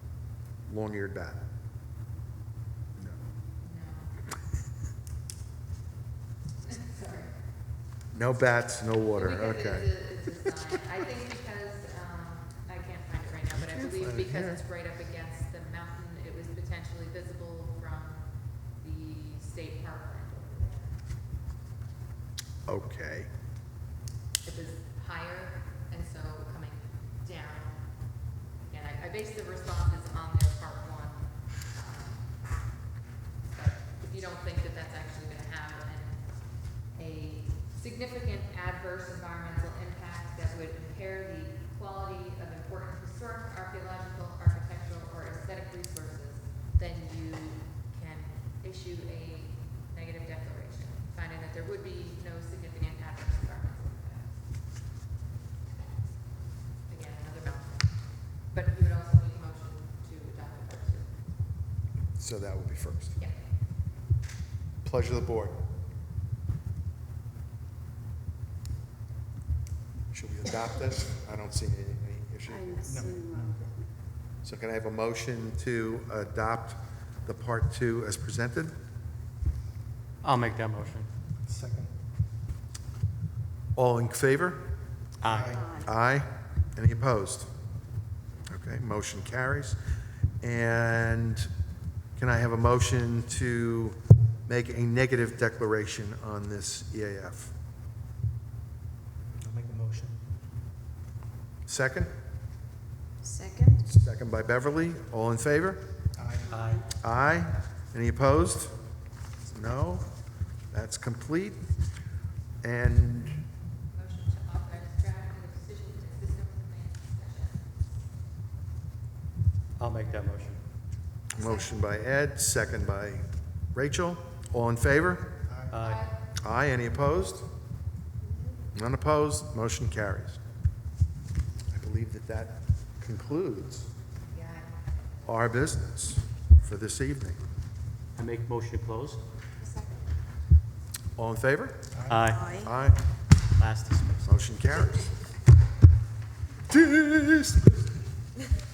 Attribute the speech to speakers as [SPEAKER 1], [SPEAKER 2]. [SPEAKER 1] long-eared bat. No bats, no water,
[SPEAKER 2] Because
[SPEAKER 1] okay.
[SPEAKER 2] it's a- it's a sign. I think because, um, I can't find it right now, but I believe
[SPEAKER 1] find it
[SPEAKER 2] because
[SPEAKER 1] here.
[SPEAKER 2] it's right up against the mountain, it was potentially visible from the state parkland over there.
[SPEAKER 1] Okay,
[SPEAKER 2] It was higher, and so coming down. And I, I based the responses on their part one. um, But if you don't think that that's actually gonna have an, a significant adverse environmental impact that would impair the quality of important historic, archaeological, architectural, or aesthetic resources, then you can issue a negative declaration, finding that there would be no significant adverse environmental impacts. Again, another mountain. But you would also need a motion to adopt the first two.
[SPEAKER 1] so that would be first.
[SPEAKER 2] Yeah.
[SPEAKER 1] Pleasure of the board. Should we adopt this? I don't see any any issue.
[SPEAKER 3] I'm seeing one.
[SPEAKER 1] So can I have a motion to adopt the part two as presented?
[SPEAKER 4] I'll make that motion.
[SPEAKER 5] Second.
[SPEAKER 1] All in favor?
[SPEAKER 4] Aye.
[SPEAKER 1] Aye. Any opposed? Okay, motion carries. And can I have a motion to make a negative declaration on this E EAF?
[SPEAKER 5] I'll make a motion.
[SPEAKER 1] Second?
[SPEAKER 3] Second?
[SPEAKER 1] Second by Beverly. All in favor?
[SPEAKER 5] Aye.
[SPEAKER 1] Aye. Any opposed? No? That's complete. And
[SPEAKER 2] Motion to authorize drafting the decision consistent with the plan discussion.
[SPEAKER 4] I'll make that motion.
[SPEAKER 1] motion by Ed, second by Rachel. All in favor?
[SPEAKER 4] Aye.
[SPEAKER 1] Aye, any opposed? None opposed, motion carries. I believe that that concludes
[SPEAKER 2] Yeah.
[SPEAKER 1] our business for this evening.
[SPEAKER 4] I make motion to close?
[SPEAKER 1] All in favor?
[SPEAKER 4] Aye.
[SPEAKER 1] Aye,
[SPEAKER 4] Last dismissal.
[SPEAKER 1] motion carries.